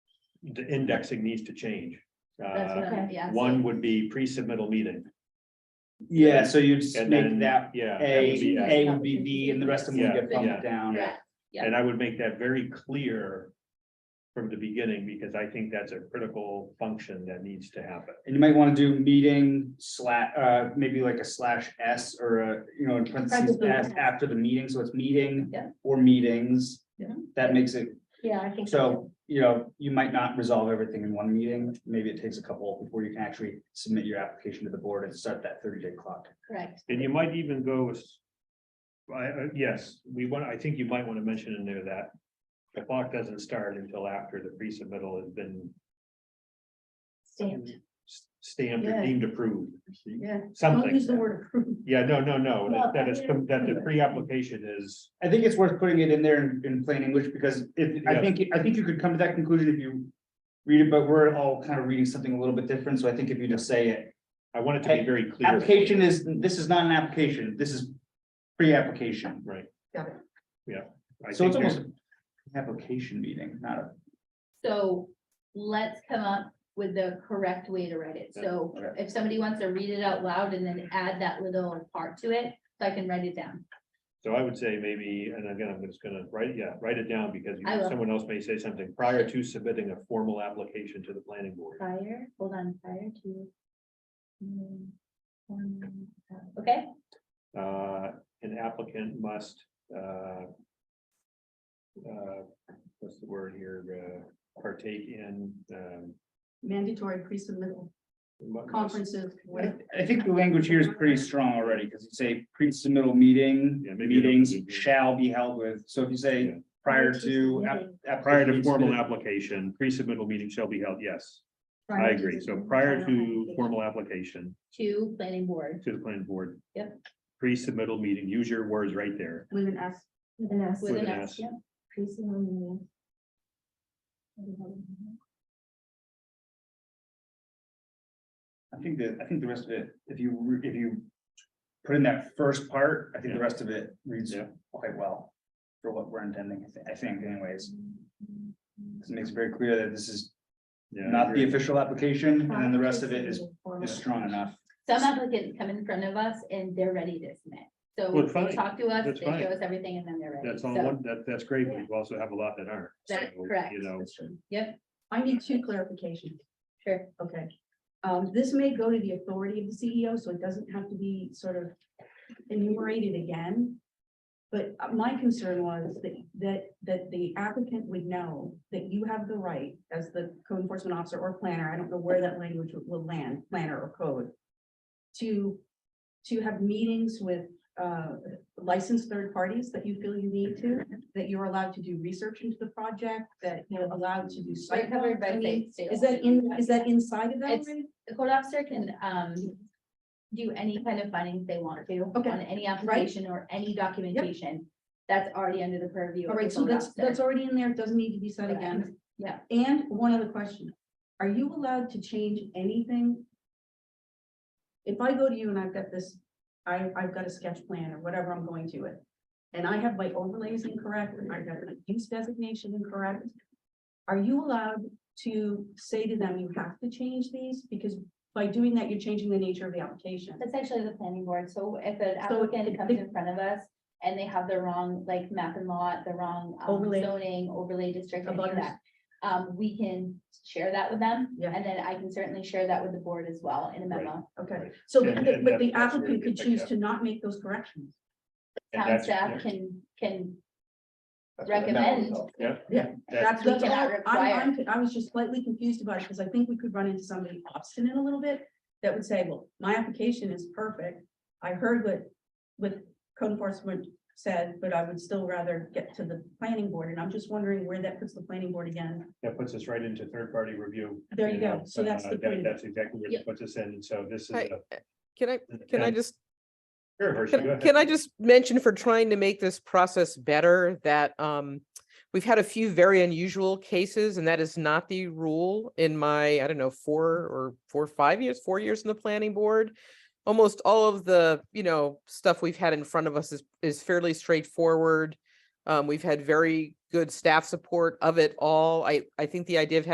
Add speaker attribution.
Speaker 1: the indexing needs to change.
Speaker 2: That's
Speaker 1: Uh,
Speaker 2: what I'm-
Speaker 3: Okay.
Speaker 2: yeah, so-
Speaker 1: one would be pre-submittal meeting.
Speaker 4: Yeah, so you just
Speaker 1: and
Speaker 4: make
Speaker 1: then-
Speaker 4: that,
Speaker 1: Yeah. that would
Speaker 4: A,
Speaker 1: be
Speaker 4: A would be B, and the rest of them would
Speaker 1: Yeah,
Speaker 4: get
Speaker 1: yeah.
Speaker 4: bumped down.
Speaker 2: Correct. yeah.
Speaker 1: And I would make that very clear from the beginning, because I think that's a critical function that needs to happen.
Speaker 4: And you might wanna do meeting slash, uh, maybe like a slash S or a, you know, in parentheses,
Speaker 3: Parentheses,
Speaker 4: S after the meeting, so it's meeting
Speaker 2: Yeah.
Speaker 4: or meetings.
Speaker 2: Yeah.
Speaker 4: That makes it,
Speaker 3: Yeah, I think.
Speaker 4: so, you know, you might not resolve everything in one meeting, maybe it takes a couple before you can actually submit your application to the board and start that thirty day clock.
Speaker 3: Correct.
Speaker 1: And you might even go with. I, I, yes, we want, I think you might want to mention in there that the clock doesn't start until after the pre-submittal has been
Speaker 3: Stamped.
Speaker 1: s- stamped
Speaker 2: Yeah.
Speaker 1: or deemed approved.
Speaker 2: Yeah. Don't use the
Speaker 1: Something,
Speaker 2: word approve.
Speaker 1: yeah, no, no, no,
Speaker 3: Well,
Speaker 1: that- that is, that the pre-application is,
Speaker 4: I think it's worth putting it in there in, in plain English, because if, I
Speaker 1: Yeah.
Speaker 4: think, I think you could come to that conclusion if you. Read it, but we're all kind of reading something a little bit different, so I think if you just say it,
Speaker 1: I want it to be very clear.
Speaker 4: application is, this is not an application, this is. Pre-application,
Speaker 1: Right.
Speaker 2: Got it.
Speaker 1: I
Speaker 4: so
Speaker 1: think
Speaker 4: it's
Speaker 1: there's,
Speaker 4: almost. an Application meeting, not a,
Speaker 2: So let's come up with the correct way to write it. So
Speaker 4: Yeah,
Speaker 2: if somebody wants to read it out loud and then add that little part to it, so I can write it down.
Speaker 1: so I would say maybe, and again, I'm just gonna write, yeah, write it down because you-
Speaker 2: I will.
Speaker 1: someone else may say something prior to submitting a formal application to the planning board.
Speaker 2: Prior, hold on, prior to. mm, um, Okay,
Speaker 1: Uh, an applicant must, uh. Uh, what's the word here, uh, partake in, um.
Speaker 5: mandatory pre-submittal
Speaker 1: mu- must-
Speaker 5: conferences
Speaker 4: I,
Speaker 5: with
Speaker 4: I think the language here is pretty strong already, because you say pre-submittal meeting,
Speaker 1: Yeah, maybe it don't
Speaker 4: meetings
Speaker 1: need to be.
Speaker 4: shall be held with, so if you
Speaker 1: Yeah.
Speaker 4: say. Prior to. uh, app-
Speaker 1: Prior to
Speaker 4: application
Speaker 1: formal
Speaker 4: submitted-
Speaker 1: application, pre-submittal meeting shall be held, yes, I agree, so prior to formal application
Speaker 2: to planning board
Speaker 1: to the planning board.
Speaker 2: Yep.
Speaker 1: Pre-submittal meeting, use your words right there,
Speaker 5: with an S.
Speaker 3: With an S.
Speaker 2: with
Speaker 1: With
Speaker 2: an
Speaker 1: an
Speaker 2: S,
Speaker 1: S.
Speaker 2: yeah.
Speaker 3: Precinct meeting.
Speaker 4: I think that, I think the rest of it, if you, re- if you put in that first part, I think the
Speaker 1: Yeah.
Speaker 4: rest of it reads
Speaker 1: Yeah.
Speaker 4: quite well. For what we're intending, I thi- I think anyways. This makes it very clear that this is
Speaker 1: yeah. I
Speaker 4: not the
Speaker 1: agree.
Speaker 4: official application, and then the rest of it is, is strong enough.
Speaker 2: Some applicants come in front of us and they're ready to submit. So
Speaker 1: Well,
Speaker 2: they
Speaker 1: fine.
Speaker 2: talk to us,
Speaker 1: That's
Speaker 2: they
Speaker 1: fine.
Speaker 2: show us everything and then they're ready.
Speaker 1: That's all,
Speaker 2: So
Speaker 1: one- that, that's great, but you also have a lot that aren't.
Speaker 2: That's
Speaker 1: So,
Speaker 2: correct.
Speaker 1: You know,
Speaker 5: I need two clarifications,
Speaker 2: Sure,
Speaker 5: okay. Um, this may go to the authority of the CEO, so it doesn't have to be sort of enumerated again. But uh, my concern was that, that, that the applicant would know that you have the right as the code enforcement officer or planner, I don't know where that language will land, planner or code. To, to have meetings with, uh, licensed third parties that you feel you need to, that you're allowed to do research into the project, that you're allowed to do. site
Speaker 2: We're covered by
Speaker 5: walks. I mean,
Speaker 2: state- state
Speaker 5: Is that in, is that inside of that?
Speaker 2: It's-
Speaker 5: already?
Speaker 2: the code officer can, um, do any kind of findings they want to
Speaker 5: Okay.
Speaker 2: on any application or any documentation. That's already under the purview. of
Speaker 5: All
Speaker 2: the
Speaker 5: right, so
Speaker 2: code
Speaker 5: that's,
Speaker 2: officer.
Speaker 5: that's already in there, it doesn't need to be said again.
Speaker 2: Yeah.
Speaker 5: And one other question, are you allowed to change anything? If I go to you and I've got this, I, I've got a sketch plan or whatever I'm going to it, and I have my overlays incorrect, and I've got my use designation incorrect. Are you allowed to say to them, you have to change these, because by doing that, you're changing the nature of the application?
Speaker 2: That's actually the planning board, so if an
Speaker 5: So
Speaker 2: applicant
Speaker 5: it-
Speaker 2: comes in front of us and they have the wrong, like, map and lot, the wrong um,
Speaker 5: Overlay.
Speaker 2: zoning, overlay district, any of
Speaker 5: Abutters.
Speaker 2: that. Um, we can share that with them,
Speaker 5: Yeah.
Speaker 2: and then I can certainly share that with the board as well in a memo.
Speaker 5: Okay,
Speaker 1: Right.
Speaker 5: so,
Speaker 1: And-
Speaker 5: the-
Speaker 1: and
Speaker 5: but the
Speaker 1: that- that's where
Speaker 5: applicant
Speaker 1: you
Speaker 5: could
Speaker 1: pick
Speaker 5: choose
Speaker 1: up.
Speaker 5: to not make those corrections.
Speaker 1: And
Speaker 2: Town
Speaker 1: that's-
Speaker 2: staff
Speaker 1: yeah.
Speaker 2: can, can,
Speaker 4: That's what the memo
Speaker 2: Recommend.
Speaker 4: is all about.
Speaker 1: That's-
Speaker 5: That's,
Speaker 2: We
Speaker 5: that's all,
Speaker 2: cannot
Speaker 5: I'm,
Speaker 2: require.
Speaker 5: I'm, I was just slightly confused about it, because I think we could run into somebody obstinate a little bit that would say, well, my application is perfect. I heard what, what code enforcement said, but I would still rather get to the planning board, and I'm just wondering where that puts the planning board again.
Speaker 1: that puts us right into third-party review.
Speaker 5: There you go.
Speaker 1: know,
Speaker 5: So that's
Speaker 1: uh,
Speaker 5: the
Speaker 1: that-
Speaker 5: point.
Speaker 1: That's exactly where
Speaker 2: Yep.
Speaker 1: it puts us in, and so this is.
Speaker 6: Right.
Speaker 1: a-
Speaker 6: Can I, can I
Speaker 1: and-
Speaker 6: just,
Speaker 1: Sure, Hershey, go
Speaker 6: can
Speaker 1: ahead.
Speaker 6: can I just mention for trying to make this process better that um, we've had a few very unusual cases and that is not the rule in my, I don't know, four or four, five years, four years in the planning board. Almost all of the, you know, stuff we've had in front of us is, is fairly straightforward. Um, we've had very good staff support of it all. I, I think the idea of having